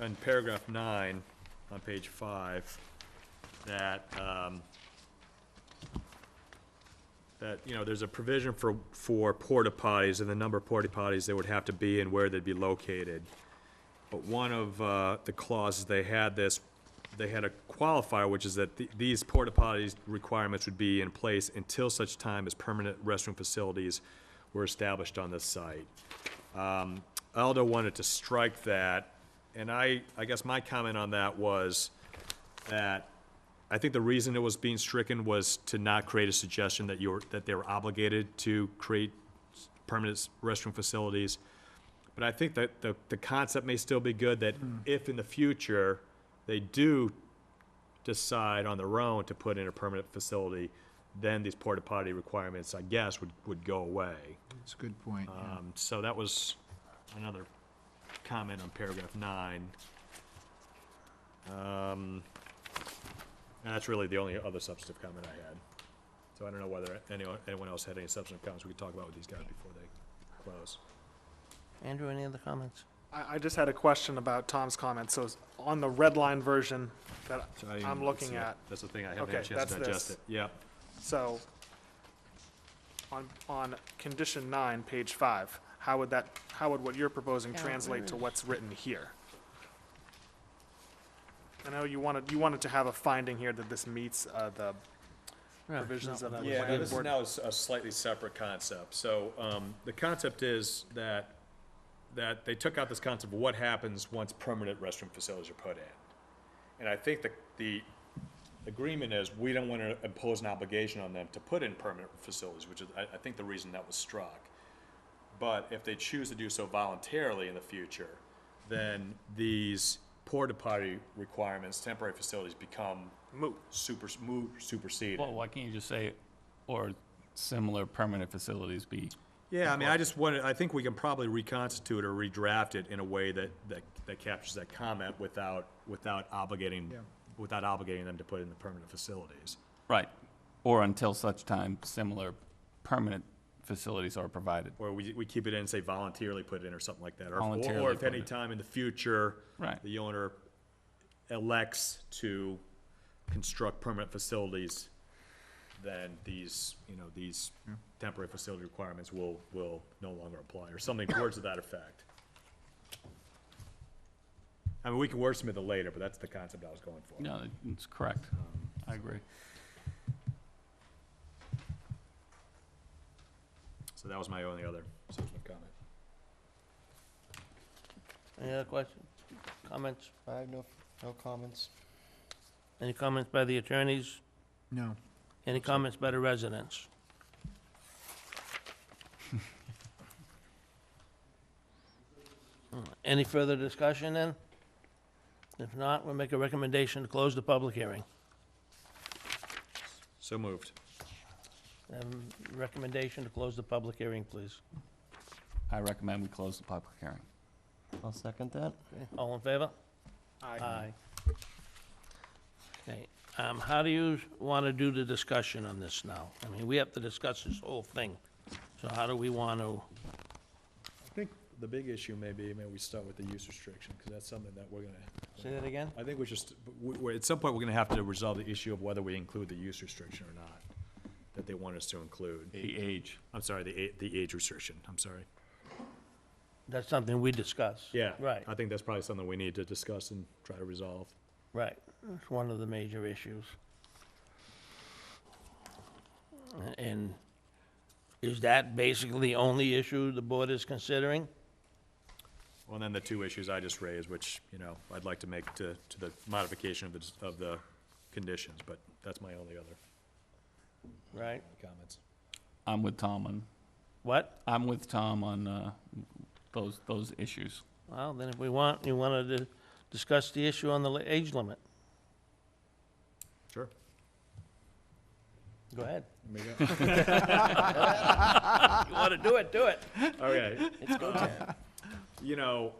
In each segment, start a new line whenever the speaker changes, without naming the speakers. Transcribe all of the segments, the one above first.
in paragraph nine, on page five, that, um, that, you know, there's a provision for, for porta potties and the number of porta potties they would have to be and where they'd be located. But one of, uh, the clauses, they had this, they had a qualifier, which is that the- these porta potties requirements would be in place until such time as permanent restroom facilities were established on this site. Um, Aldo wanted to strike that, and I, I guess my comment on that was that I think the reason it was being stricken was to not create a suggestion that you're, that they were obligated to create s- permanent s- restroom facilities. But I think that the, the concept may still be good, that if in the future, they do decide on their own to put in a permanent facility, then these porta potty requirements, I guess, would, would go away.
That's a good point. yeah.
Um, so that was another comment on paragraph nine. Um, and that's really the only other substantive comment I had. So I don't know whether anyone, anyone else had any substantive comments we could talk about with these guys before they close.
Andrew, any other comments?
I, I just had a question about Tom's comment. So it's on the red line version that
So I didn't even
I'm
see
looking
it.
at,
That's the thing, I haven't had a chance
Okay,
to
that's
digest
this.
it. Yeah,
so on, on condition nine, page five, how would that, how would what you're proposing
Yeah,
translate to
really.
what's written here? I know you wanted, you wanted to have a finding here that this meets, uh, the
No,
Provisions
no,
of the
no.
Yeah,
Yeah,
planning
this is
board-
now is a slightly separate concept. So, um, the concept is that, that they took out this concept of what happens once permanent restroom facilities are put in. And I think the, the agreement is we don't wanna impose an obligation on them to put in permanent facilities, which is, I, I think the reason that was struck. But if they choose to do so voluntarily in the future, then these porta potty requirements, temporary facilities become
moot.
super, moot, superseded.
Well, why can't you just say, or similar permanent facilities be?
Yeah, I mean, I just wanted, I think we can probably reconstitute or redraft it in a way that, that, that captures that comment without, without obligating,
Yeah.
without obligating them to put in the permanent facilities.
Right, or until such time similar permanent facilities are provided.
Or we, we keep it in and say voluntarily put it in or something like that. Or- Or, or
Voluntarily
if
put
any
it.
time in the future.
Right.
The owner elects to construct permanent facilities, then these, you know, these temporary facility requirements will, will no longer apply, or something towards that effect. I mean, we can wordsmith it later, but that's the concept I was going for. Um,
No, it's correct. I agree.
So that was my only other substantive comment.
Any other questions, comments?
I have no, no comments.
Any comments by the attorneys?
No,
Any comments by the residents? Hmm, Any further discussion then? If not, we'll make a recommendation to close the public hearing.
So moved.
Um, Recommendation to close the public hearing, please.
I recommend we close the public hearing.
I'll second that.
All in favor?
Uh,
Aye. Okay, um, how do you want to do the discussion on this now? I mean, we have to discuss this whole thing, so how do we want to,
I think the big issue may be, maybe we start with the use restriction, because that's something that we're gonna.
say that again?
I think we just, we, we, at some point, we're gonna have to resolve the issue of whether we include the use restriction or not, that they want us to include.
The age.
I'm sorry, the a, the age restriction, I'm sorry.
That's something we discuss.
Yeah.
Right,
I think that's probably something we need to discuss and try to resolve.
right. It's one of the major issues. And is that basically the only issue the board is considering?
Well, and then the two issues I just raised, which, you know, I'd like to make to, to the modification of the, dis- of the conditions, but that's my only other
Right?
comments.
I'm with Tom on,
What?
I'm with Tom on, uh, those, those issues.
Well, then if we want, you want to discuss the issue on the li- age limit.
Sure.
Go ahead. You want to do it, do it.
Okay. You know,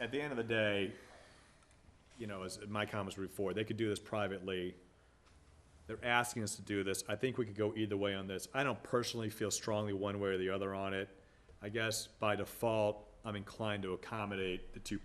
at the end of the day, you know, as my comments were before, they could do this privately. They're asking us to do this. I think we could go either way on this. I don't personally feel strongly one way or the other on it. I guess by default, I'm inclined to accommodate the two